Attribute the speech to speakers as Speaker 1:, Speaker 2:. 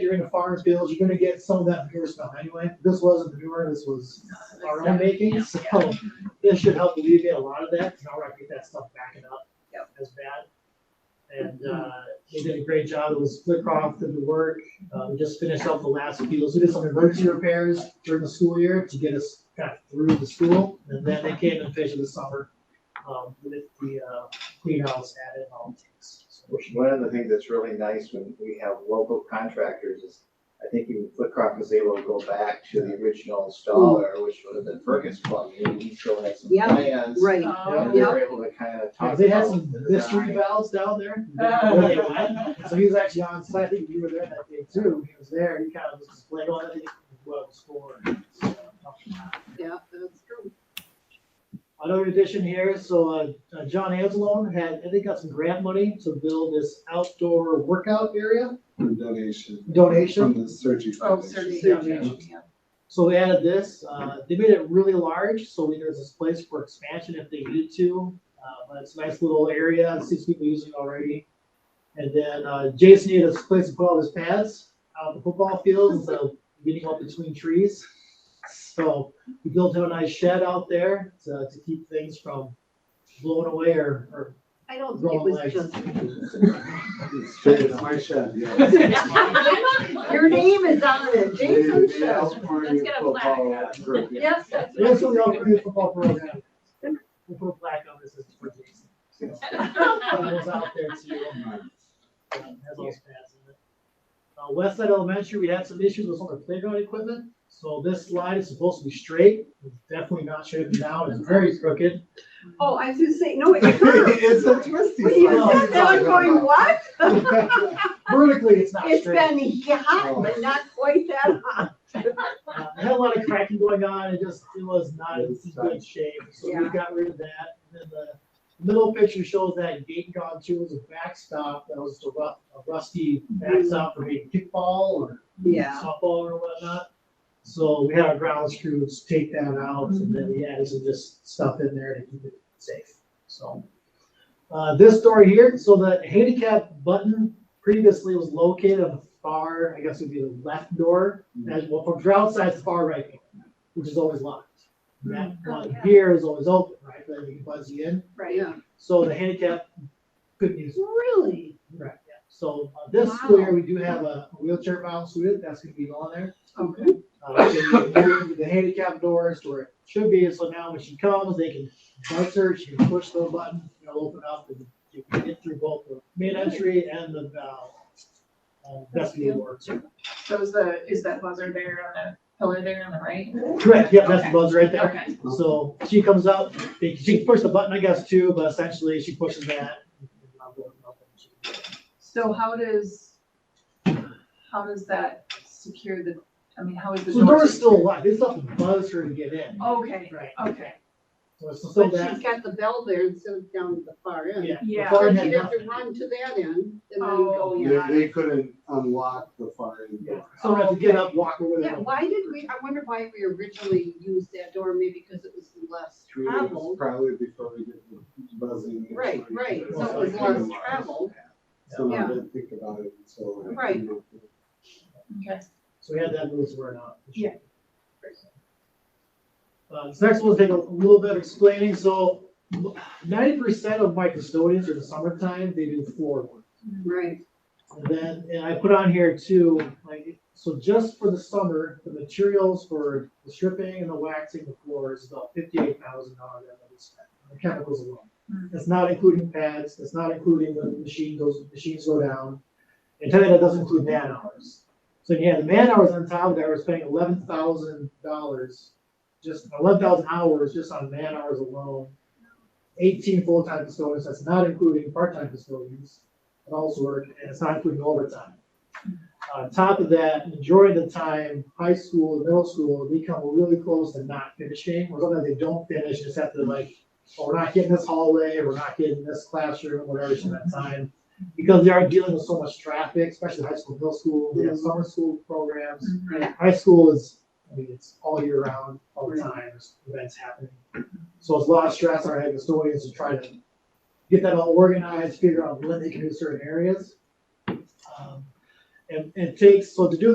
Speaker 1: you're in the farm fields, you're gonna get some of that manure smell anyway. This wasn't manure, this was our own making, so this should help alleviate a lot of that, because now we're not getting that stuff backing up
Speaker 2: Yep.
Speaker 1: as bad. And, uh, they did a great job, it was Flickroff did the work, uh, we just finished up the last fields, we did some emergency repairs during the school year to get us kind of through the school, and then they came and finished the summer, um, with the, uh, clean house added and all the things. So,
Speaker 3: One of the things that's really nice when we have local contractors is, I think even Flitcroft was able to go back to the original installer, which would have been Fergus Plumbing, and he still had some
Speaker 2: Yeah,
Speaker 3: plans.
Speaker 2: Right,
Speaker 3: And
Speaker 1: Yeah,
Speaker 3: we
Speaker 2: yeah.
Speaker 3: were able to kind of talk.
Speaker 1: They had some
Speaker 3: about the
Speaker 1: mystery
Speaker 3: design.
Speaker 1: valves down there.
Speaker 4: Oh,
Speaker 1: Really wet. So he was actually on site, I think you were there that day too, he was there, he kind of was displaying all that, what it was for. so,
Speaker 2: yeah, that's true.
Speaker 1: Another addition here, so uh, uh, John Anzalone had, I think got some grant money to build this outdoor workout area.
Speaker 5: From donation.
Speaker 1: Donation?
Speaker 5: From the Sergi
Speaker 2: Oh, certainly,
Speaker 5: Foundation.
Speaker 1: Foundation.
Speaker 2: yeah.
Speaker 1: So they added this, uh, they made it really large, so there's this place for expansion if they needed to. Uh, but it's a nice little area, it seems people using already. And then, uh, Jason needed a place to put all his pads, out on the football field, instead of getting up between trees. So we built him a nice shed out there to, to keep things from blowing away or, or.
Speaker 2: I don't think Oh, it was just.
Speaker 5: It's fair, It's my shed, yeah.
Speaker 2: Your name is on it, Jason
Speaker 5: They- they
Speaker 2: Show.
Speaker 5: asked for
Speaker 4: Let's
Speaker 5: a
Speaker 4: get a
Speaker 5: football group, yeah.
Speaker 2: Yes, that's.
Speaker 1: That's what we all do with football program. We'll put a plaque on this, this is for Jason.
Speaker 4: Well,
Speaker 1: That was out there Oh, too. um, has all pads in it. Uh, West Side Elementary, we had some issues with some of the playground equipment, so this slide is supposed to be straight, it's definitely not straight now, it's very crooked.
Speaker 2: Oh, I was just saying, no, it curved.
Speaker 5: It's a twisty.
Speaker 2: When you
Speaker 5: slide.
Speaker 2: said that, I'm going, what?
Speaker 1: Vertically, it's not
Speaker 2: It's
Speaker 1: straight.
Speaker 2: been hot, but not quite that hot.
Speaker 1: Uh, It had a lot of cracking going on, it just, it was not in good shape, so we
Speaker 2: Yeah.
Speaker 1: got rid of that. And then the middle picture shows that gate gone too, was a backstop, that was a ru- a rusty backstop for maybe kickball or
Speaker 2: Yeah.
Speaker 1: softball or whatnot. So we had our ground screws take that out and then we added some just stuff in there to keep it safe, so. Uh, this door here, so the handicap button previously was located on the far, I guess it would be the left door. As well, from your outside, it's far right door, which is always locked. That one here is always open, right, but you can buzz you in.
Speaker 2: Right, yeah.
Speaker 1: So the handicap couldn't use
Speaker 2: Really?
Speaker 1: Right, yeah, so uh, this school year, we do have a wheelchair bound student, that's gonna be on there.
Speaker 2: Okay.
Speaker 1: Uh, so we moved The handicap doors to where it should be, so now when she comes, they can buzz her, she can push the button, it'll open up and you can get through both the main entry and the, uh, uh, vestibule doors.
Speaker 4: So is the, is that buzzer there on that pillar there on the right?
Speaker 1: Correct, yeah, that's the buzz right there.
Speaker 4: Okay.
Speaker 1: So she comes up, they- she can push the button, I guess, too, but essentially she pushes that.
Speaker 4: So how does, how does that secure the, I mean, how is the
Speaker 1: So The door's
Speaker 4: door?
Speaker 1: still locked, it's not to buzz her to get in.
Speaker 4: Okay,
Speaker 1: Right,
Speaker 4: okay.
Speaker 1: so it's still
Speaker 2: Oh. But
Speaker 1: that.
Speaker 2: she's got the bell there instead of down at the far end.
Speaker 1: Yeah.
Speaker 4: Yeah.
Speaker 1: before
Speaker 2: So
Speaker 1: it had
Speaker 2: she'd have to
Speaker 1: nothing.
Speaker 2: run to that end and then
Speaker 4: Oh,
Speaker 2: go in.
Speaker 5: They, they couldn't unlock the fire.
Speaker 1: Yeah. So we have to get up, walk over
Speaker 2: Oh, Yeah,
Speaker 1: there.
Speaker 2: why did we, I wonder why we originally used that door, maybe because it was less
Speaker 5: Three days
Speaker 2: traveled.
Speaker 5: Probably before we get the buzzing.
Speaker 2: Right, right,
Speaker 1: so it was
Speaker 2: less travel.
Speaker 5: So
Speaker 2: Yeah.
Speaker 5: I didn't think about it until.
Speaker 2: Right.
Speaker 4: Okay.
Speaker 1: So we had that move where not.
Speaker 4: Yeah.
Speaker 1: Uh, this next one's take a little bit of explaining, so ninety percent of my custodians are the summertime, they do floor work.
Speaker 2: Right.
Speaker 1: And then, and I put on here too, like, so just for the summer, the materials for the stripping and the waxing the floors is about fifty-eight thousand dollars that we spent, on the chemicals alone.
Speaker 4: Mhm.
Speaker 1: That's not including pads, that's not including the machine, those machines go down. And tell you that doesn't include man hours. So you had the man hours on top of that, we're spending eleven thousand dollars, just eleven thousand hours just on man hours alone. Eighteen full-time custodians, that's not including part-time custodians and also work, and it's not including overtime. On top of that, majority of the time, high school, middle school, they come really close to not finishing, or sometimes they don't finish, just have to like, oh, we're not getting this hallway, we're not getting this classroom, whatever, it's that time. Because they are dealing with so much traffic, especially high school, middle school, they have summer school programs. High school is, I mean, it's all year round, all the time, there's events happening. So it's a lot of stress on our head custodians to try to get that all organized, figure out when they can do certain areas. Um, and, and it takes, so to do